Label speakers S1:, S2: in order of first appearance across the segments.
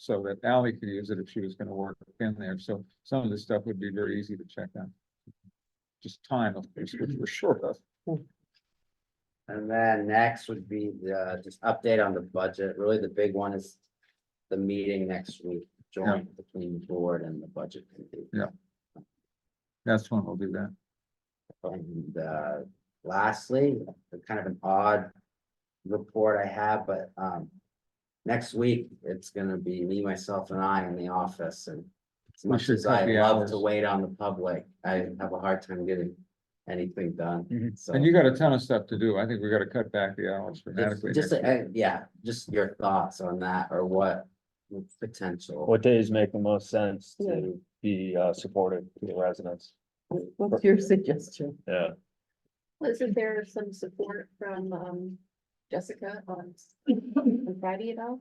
S1: so that Ally could use it if she was gonna work in there, so some of this stuff would be very easy to check on. Just time, of course, which we're short of.
S2: And then next would be the, just update on the budget, really the big one is the meeting next week, joint between the board and the budget committee.
S1: That's when we'll do that.
S2: And uh, lastly, kind of an odd report I have, but um. Next week, it's gonna be me, myself and I in the office and. As
S1: We
S2: much
S1: should
S2: as I
S1: cut the
S2: love
S1: hours.
S2: to wait on the public, I have a hard time getting anything done,
S1: Mhm.
S2: so.
S1: And you got a ton of stuff to do. I think we gotta cut back the hours
S2: Just,
S1: dramatically.
S2: just,
S1: next
S2: uh, yeah, just your thoughts on that or what potential
S3: What days make the most sense
S4: Yeah.
S3: to be uh supportive to the residents?
S4: What- What's your suggestion?
S3: Yeah.
S5: Wasn't there some support from um Jessica on on Friday at all?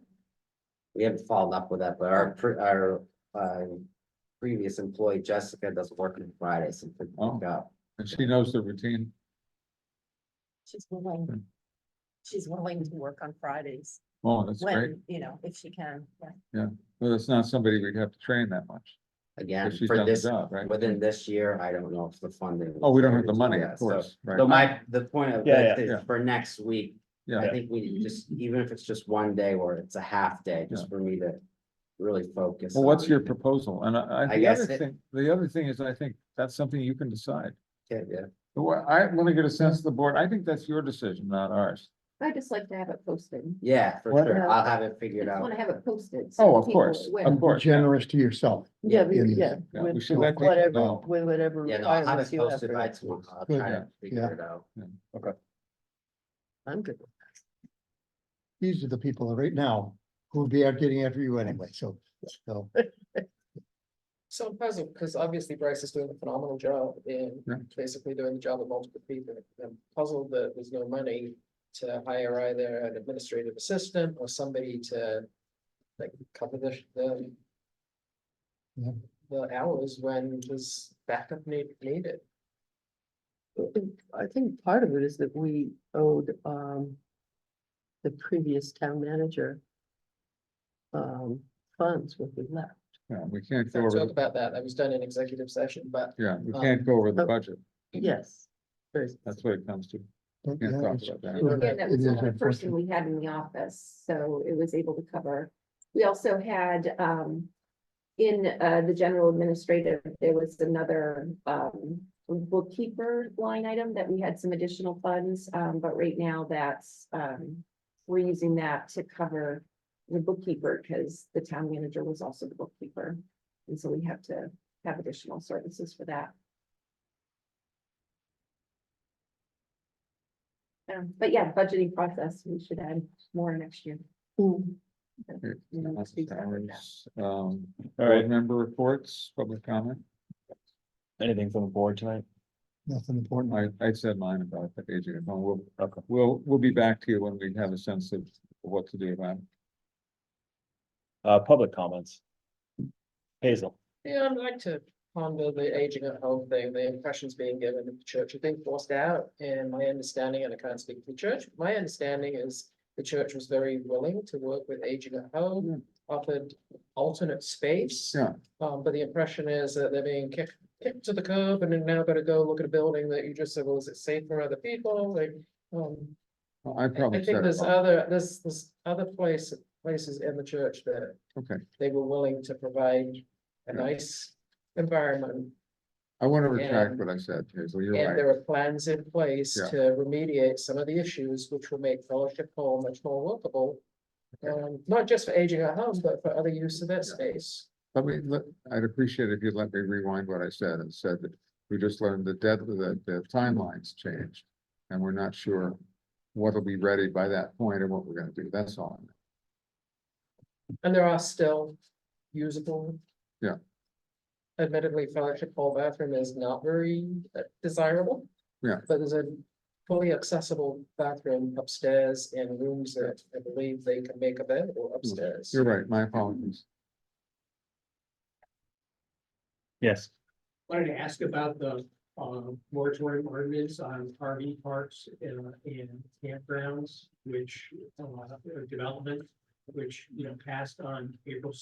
S2: we haven't followed up with that, but our, pre- our, uh, previous employee Jessica does work on Friday, so we
S1: Oh.
S2: pick up.
S1: And she knows the routine.
S4: She's
S1: Hmm.
S4: willing. She's willing to work on Fridays
S1: Oh, that's great.
S4: when, you know, if she can. yeah.
S1: Well, that's not somebody we'd have to train that much.
S2: Again,
S1: If she's
S2: for
S1: done the
S2: this,
S1: job, right?
S2: within this year, I don't know if the funding.
S1: Oh, we don't have the
S2: is-
S1: money,
S2: yeah,
S1: of
S2: so-
S1: course,
S2: So
S1: right?
S2: my, the point of
S3: Yeah,
S2: that
S1: yeah,
S2: is
S1: yeah.
S2: for next week, I
S1: Yeah,
S2: think we just, even if it's just one day or it's a half day, just for me to really focus.
S1: well, what's
S2: on-
S1: your proposal? And I, I, the
S2: guess
S1: other
S2: it-
S1: thing, the other thing is, I think that's something you can decide.
S2: Yeah, yeah.
S1: But what- I wanna get a sense of the board. I think that's your decision, not ours.
S5: I just like to have it posted.
S2: Yeah, for
S6: What-
S2: sure.
S5: Yeah.
S2: I'll have it
S5: I
S2: figured
S5: just
S2: out.
S5: want to have it posted. so
S1: Oh, of
S5: people are
S1: course,
S5: aware.
S1: of
S6: And be
S1: course. yeah.
S6: generous to yourself.
S4: Yeah, we-
S6: Yeah.
S4: yeah,
S1: Yeah,
S4: with
S1: we should let people
S4: whatever,
S1: know.
S4: with whatever
S2: Yeah, no, I'll have
S4: requirements
S2: it
S4: you have.
S2: posted
S4: for
S2: by
S4: it.
S2: tomorrow. I'll
S6: Good,
S2: try
S1: yeah,
S2: to figure it out.
S4: I'm good. with
S6: These are the people right now who would be out getting after you anyway, so, so.
S7: So impressive, because obviously Bryce is doing a phenomenal job in
S1: Yeah.
S7: basically doing the job of multiple people. I'm puzzled that there's no money to hire either an administrative assistant or somebody to like cover the, the
S6: Yeah.
S7: the hours when there's backup need, needed.
S4: that. I think part of it is that we owed, um, the previous town manager um, funds when we left.
S1: Yeah, we can't go
S7: We'll
S1: over,
S7: Talk
S1: the-
S7: about that. That was done in executive session, but
S1: yeah, we can't go over the
S4: Um,
S1: budget.
S8: Mm-hmm.
S4: Yes. very-
S1: That's what it comes to.
S6: but
S1: Can't
S6: yeah,
S1: talk
S6: it's-
S1: about that.
S6: it was-
S5: Yeah, that
S6: it
S5: was
S6: is
S5: the only person
S6: unfortunate.
S5: we had in the office, so it was able to cover. We also had, um, in, uh, the general administrative, there was another, um, bookkeeper line item that we had some additional funds, um, but right now that's, um, we're using that to cover the bookkeeper, because the town manager was also the bookkeeper. And so we have to have additional services for that. Um, but yeah, budgeting process, we should add more next year.
S1: Here,
S5: You
S4: Mm-hmm,
S5: know,
S1: lots
S5: we
S1: of
S5: covered
S1: hours. Um,
S3: All right,
S1: board member reports, public comment.
S3: anything from the board tonight?
S6: Nothing important.
S1: I, I said mine about the aging at home. We'll,
S3: Okay.
S1: we'll, we'll be back to you when we have a sense of what to do about it.
S3: Uh, public comments? Hazel,
S7: Yeah, I'd like to ponder the aging at home thing, the impressions being given of the church are being forced out, and my understanding, and I can't speak for the church, but my understanding is. The church was very willing to work with aging at home, offered alternate space.
S1: Yeah.
S7: Um, but the impression is that they're being kicked, kicked to the curb and then now gotta go look at a building that you just said, well, is it safe for other people, like, um.
S1: Well, I
S7: I- I
S1: probably
S7: think
S1: said it
S7: there's
S1: wrong.
S7: other, there's, there's other place, places in the church that.
S1: Okay.
S7: They were willing to provide
S1: Yeah.
S7: a nice environment,
S1: I want to retract
S7: and-
S1: what I said, Hazel. You're
S7: and
S1: right.
S7: there are plans in place
S1: Yeah.
S7: to remediate some of the issues, which will make fellowship hall much more workable. Um, not just for aging at home, but for other use of that
S1: Yeah.
S7: space.
S1: Let me, let, I'd appreciate if you'd let me rewind what I said and said that we just learned the dead, the, the timelines changed. And we're not sure what'll be ready by that point and what we're gonna do. That's all.
S7: And there are still usable.
S1: Yeah.
S7: Admittedly, fellowship hall bathroom is not very uh, desirable.
S1: Yeah.
S7: But there's a fully accessible bathroom upstairs and rooms that I believe they can make
S1: Hmm.
S7: available upstairs.
S1: You're right. My apologies.
S3: yes.
S8: wanted to ask about the um moratorium ordinance on RV parks and and campgrounds, which uh development, which, you know, passed on April